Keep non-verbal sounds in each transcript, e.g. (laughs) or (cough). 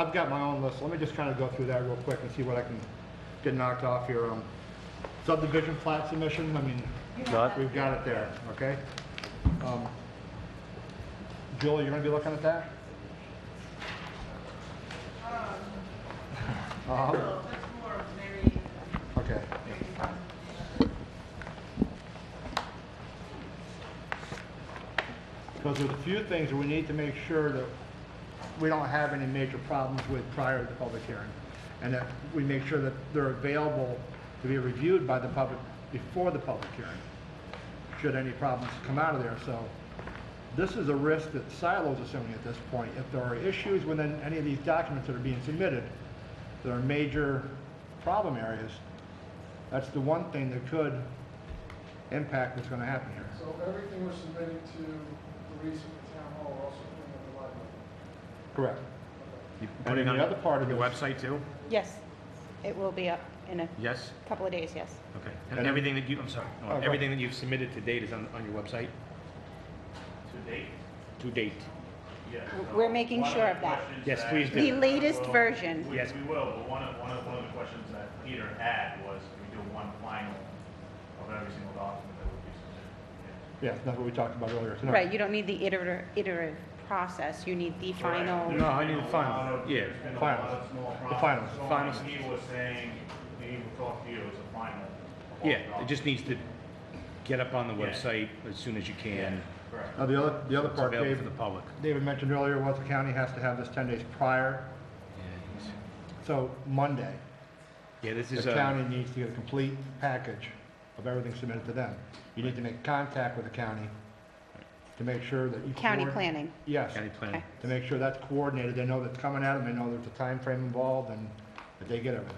I've got my own list, let me just kind of go through that real quick and see what I can get knocked off here. Um, Subdivision plat submission, I mean, Not- we've got it there, okay? Um, Jill, you're gonna be looking at that? (laughs) Uh-huh, Well, that's more of Mary, Okay. Mary Beth. Because there's a few things that we need to make sure that we don't have any major problems with prior to the public hearing. And that we make sure that they're available to be reviewed by the public before the public hearing, should any problems come out of there. So this is a risk that Silo's assuming at this point. If there are issues within any of these documents that are being submitted, that are major problem areas, that's the one thing that could impact what's going to happen here. So everything we're submitting to the recent town hall, we're also putting on the library. Correct. You And putting then on the other part of The it- website too? Yes, it will be up in a Yes? couple of days, yes. Okay. And- And everything that you, I'm sorry, no, Oh, go everything that you've submitted to date is on, on your website? To date, To date? yes. We're making One sure the of that. questions Yes, that- please do. The latest Well, version. we- Yes. We will, but one of, one of, one of the questions that Peter had was, can we do one final of every single document that would be submitted? Yeah. Yeah, that's what we talked about earlier tonight. Right, you don't need the iterative, iterative process, you need the Right. final. No, I need There's the been a lot final. of- Yeah. There's been a lot Finals. of small The problems. finals. So Finals. like He was saying, he would talk to you as a final. of all Yeah, the it just documents. needs to get up on the Yeah. website as soon as you can. Correct. Now, the other, the other It's part available Dave, for the public. David mentioned earlier was the county has to have this ten days prior, so Monday, Yeah, this the is, uh, county needs to get a complete package of everything submitted to them. You need to make contact with the county to make sure that you. County coordinate- planning, Yes, county planning. Okay. to make sure that's coordinated, they know that's coming at them, they know there's a time frame involved, and that they get everything.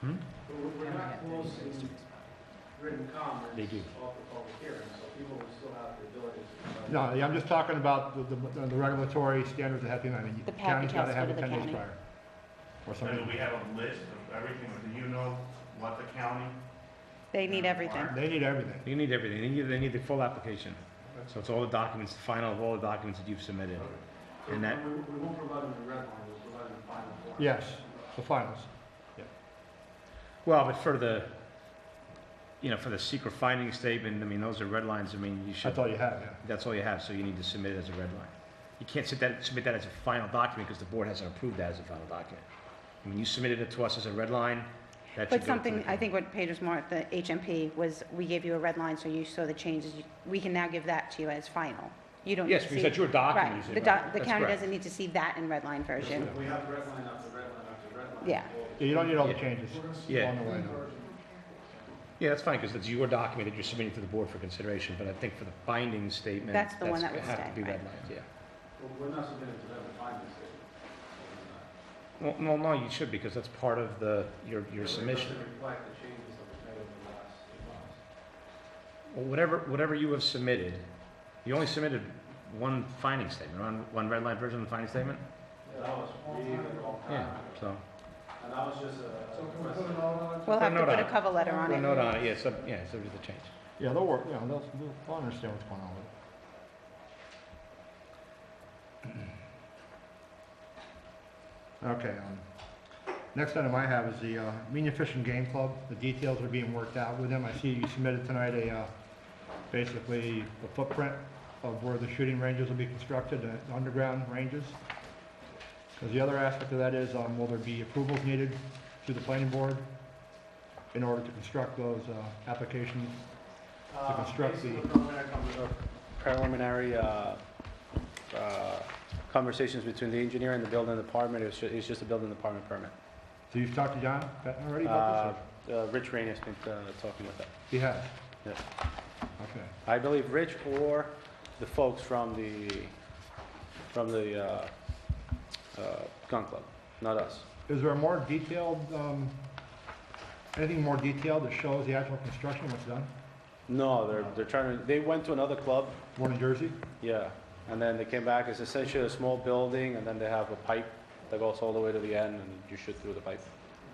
Hmm? But we're- we're not closing written comments. They do. Off the public hearing, so people will still have the ability to. No, I'm just talking about the, the- the regulatory standards that have to be, I mean, The county's gotta package has to have go it to the ten days county. prior. Or So something. do we have a list of everything, do you know what the county? they need everything. They need everything. You need everything. They need, they need the full application. So it's all the documents, the final of all the documents that you've submitted. So And that- We we won't provide them the red line, we'll provide them the final form. Yes, the finals. Well, but for the, you know, for the secret finding statement, I mean, those are red lines. I mean, you should, That's all you have, yeah. that's all you have, so you need to submit it as a red line. You can't sit that, submit that as a final document because the board hasn't approved that as a final document. When you submitted it to us as a red line, But that should go to something, the- I think what Paige was more at the HMP was, we gave you a red line, so you saw the changes. You- We can now give that to you as final. You don't need Yes, to see. because that's your document, you Right, said, the doc- right. the That's county correct. doesn't need to see that in red line If version. we have the red line after red line after red line. Yeah. we'll- You don't need all the Yeah. changes We're gonna see Yeah. along the way. no. Yeah, that's fine, because it's your document that you're submitting to the board for consideration, but I think for the binding statement. That's the one that would Have stay, to be right. redlined, yeah. we're- We're not submitting to them the final statement. Well, no, no, you should, because that's part of the, your, your submission. It doesn't reflect the changes that were made over the last few months. Well, whatever, whatever you have submitted, you only submitted one finding statement, one, one red line version of the finding statement? And that was really long Yeah, time. ago. so, And that was just a. So can we put it all on? We'll have to Put a note put a on it. cover letter on put a it. note on it, yeah, so, yeah, so there's a change. Yeah, they'll work, you know, they'll, they'll- they'll understand what's going on with it. (clears throat) Okay, um, next item I have is the, uh, Mena Fish and Game Club. The details are being worked out with them. I see you submitted tonight a, uh, basically the footprint of where the shooting ranges will be constructed, uh, underground ranges. Because the other aspect of that is, um, will there be approvals needed through the planning board in order to construct those, uh, applications? Uh, construct based on the- the preliminary com- uh, Preliminary uh, uh, conversations between the engineer and the building department, it's ju- it's just a building department permit. So you've talked to John Patton already Uh, about this? uh, Rich Rain has been uh, talking with them. or- He has? Yes. Okay. I believe Rich or the folks from the, from the uh, uh, gun club, not us. Is there a more detailed, um, anything more detailed that shows the actual construction, what's done? No, they're, they're trying to, they went to another club, One in Jersey? yeah, and then they came back, it's essentially a small building, and then they have a pipe that goes all the way to the end, and you shoot through the pipe.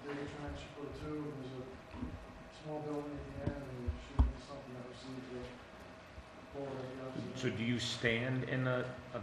Dig a trench for two, and there's a small building at the end, and we shoot something that receives the. So do you stand in a, a